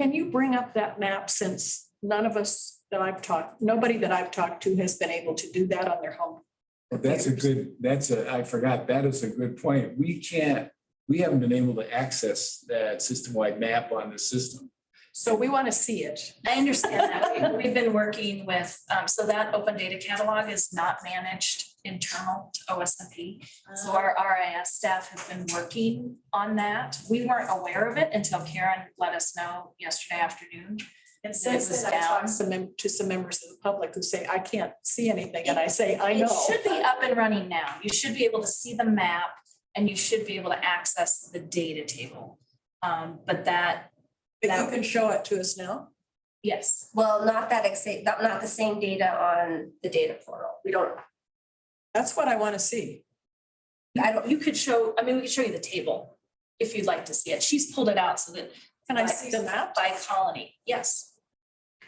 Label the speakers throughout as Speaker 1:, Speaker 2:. Speaker 1: Can you bring up that map since none of us that I've talked, nobody that I've talked to has been able to do that on their home?
Speaker 2: Well, That's a good, that's a, I forgot, that is a good point. We can't, we haven't been able to access that system-wide map on the system.
Speaker 1: So we want to see it.
Speaker 3: I understand that. We- We've been working with, um, so that open data catalog is not managed internal to OSMP. So
Speaker 1: Ah.
Speaker 3: our RIS staff have been working on that. We weren't aware of it until Karen let us know yesterday afternoon.
Speaker 1: And
Speaker 3: since
Speaker 1: since
Speaker 3: then,
Speaker 1: I
Speaker 3: I
Speaker 1: talk
Speaker 3: talked
Speaker 1: some, mem- to some members of the public who say, I can't see anything, and I say, I
Speaker 3: It
Speaker 1: know.
Speaker 3: should be up and running now. You should be able to see the map and you should be able to access the data table. Um, but that,
Speaker 1: But you can show it to us now?
Speaker 3: yes,
Speaker 4: Well, not that exact, not, not the same data on the data portal. We don't,
Speaker 1: That's what I want to see.
Speaker 4: I don't,
Speaker 3: you could show, I mean, we could show you the table if you'd like to see it. She's pulled it out so that
Speaker 1: Can I see the map?
Speaker 3: By colony, yes.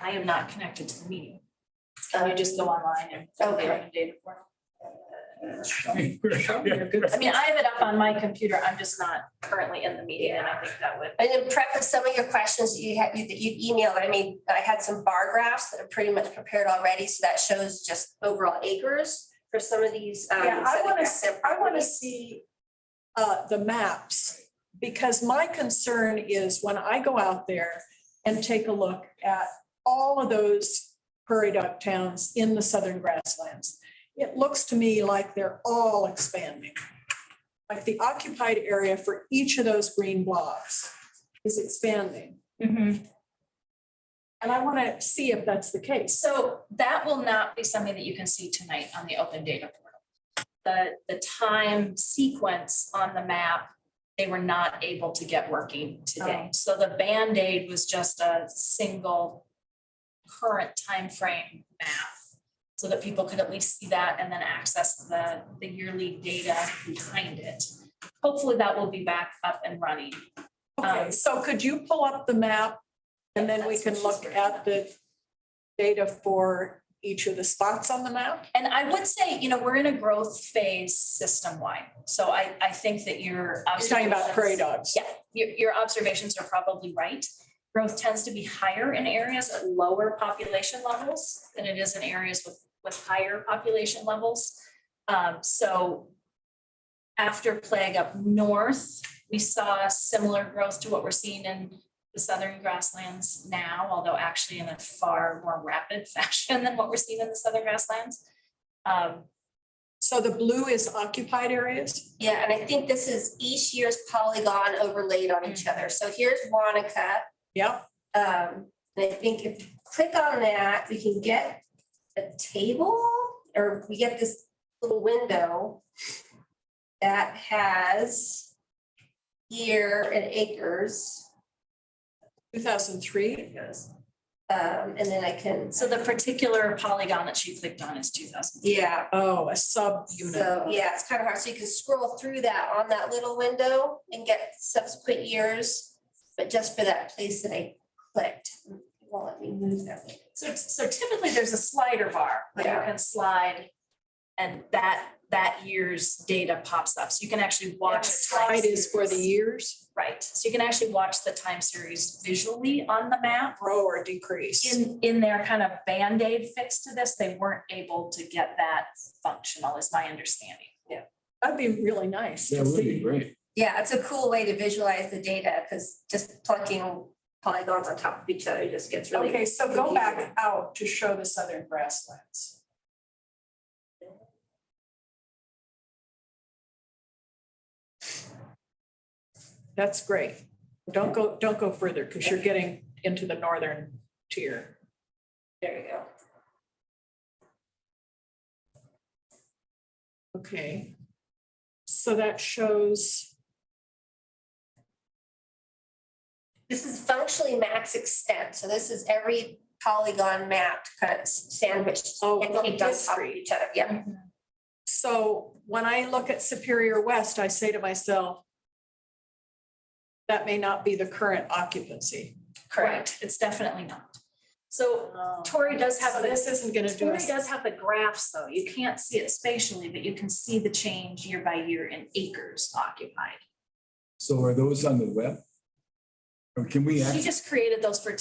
Speaker 3: I am not connected to the meeting. So you just go online and.
Speaker 4: Okay.
Speaker 3: Right, data portal.
Speaker 1: You're good.
Speaker 3: I mean, I have it up on my computer. I'm just not currently in the meeting and I think that would.
Speaker 4: and in prep of some of your questions that you had, you- that you emailed, I mean, I had some bar graphs that are pretty much prepared already. So that shows just overall acres for some of these. um,
Speaker 1: Yeah, I
Speaker 4: some of the
Speaker 1: want
Speaker 4: graphs
Speaker 1: to,
Speaker 4: that-
Speaker 1: I want to see uh, the maps, because my concern is when I go out there and take a look at all of those prairie dog towns in the southern grasslands, it looks to me like they're all expanding. Like the occupied area for each of those green blobs is expanding. And I want to see if that's the case.
Speaker 3: So that will not be something that you can see tonight on the open data portal. The, the time sequence on the map, they were not able to get working today. So the Band-Aid was just a single current time frame map so that people could at least see that and then access the, the yearly data behind it. Hopefully that will be back up and running.
Speaker 1: Okay,
Speaker 3: Um,
Speaker 1: so could you pull up the map? And then we
Speaker 3: That's what
Speaker 1: can look
Speaker 3: she's
Speaker 1: at the data for each of the spots on the map?
Speaker 3: And I would say, you know, we're in a growth phase system-wide. So I, I think that your.
Speaker 1: I'm talking about prairie dogs.
Speaker 3: Yeah, your, your observations are probably right. Growth tends to be higher in areas at lower population levels than it is in areas with, with higher population levels. Um, so after plague up north, we saw similar growth to what we're seeing in the southern grasslands now, although actually in a far more rapid fashion than what we're seeing in the southern grasslands. Um,
Speaker 1: So the blue is occupied areas?
Speaker 4: Yeah, and I think this is each year's polygon overlaid on
Speaker 1: Mm.
Speaker 4: each other. So here's Wanaka.
Speaker 1: Yep,
Speaker 4: Um, and I think if you click on that, we can get a table or we get this little window that has year and acres.
Speaker 1: 2003.
Speaker 4: Um, and then I can,
Speaker 3: so the particular polygon that she clicked on is two thousand.
Speaker 4: yeah,
Speaker 1: Oh, a subunit.
Speaker 4: so yeah, it's kind of hard. So you can scroll through that on that little window and get subsequent years. But just for that place that I clicked, it won't let me move that. one.
Speaker 3: So, so typically there's a slider bar that you
Speaker 4: Yeah.
Speaker 3: can slide and that, that year's data pops up. So you can actually
Speaker 1: The
Speaker 3: watch. a time
Speaker 1: Slide is for the
Speaker 3: series.
Speaker 1: years,
Speaker 3: Right. So you can actually watch the time series visually on the map.
Speaker 1: grow or decrease.
Speaker 3: In, in their kind of Band-Aid fix to this, they weren't able to get that functional is my understanding.
Speaker 1: That'd be really nice
Speaker 2: That
Speaker 1: to
Speaker 2: would be
Speaker 1: see.
Speaker 2: great.
Speaker 4: Yeah, it's a cool way to visualize the data because just plunking polygons on top of each other just gets really.
Speaker 1: Okay, so go back out to show the southern grasslands. That's great. Don't go, don't go further because you're getting into the northern tier.
Speaker 4: There you go.
Speaker 1: Okay. So that shows,
Speaker 4: This is functionally max extent. So this is every polygon mapped kind of sandwiched
Speaker 1: Oh,
Speaker 4: and caked on top of
Speaker 1: history.
Speaker 4: each other. Yeah.
Speaker 1: Mm-hmm. so when I look at Superior West, I say to myself, that may not be the current occupancy.
Speaker 3: Correct. It's definitely not. So Tori does have
Speaker 1: Oh. So
Speaker 3: the
Speaker 1: this isn't going to do
Speaker 3: Tori
Speaker 1: us.
Speaker 3: does have the graphs, though. You can't see it spatially, but you can see the change year by year in acres occupied.
Speaker 2: So are those on the web? Can we? access?
Speaker 3: She just created those for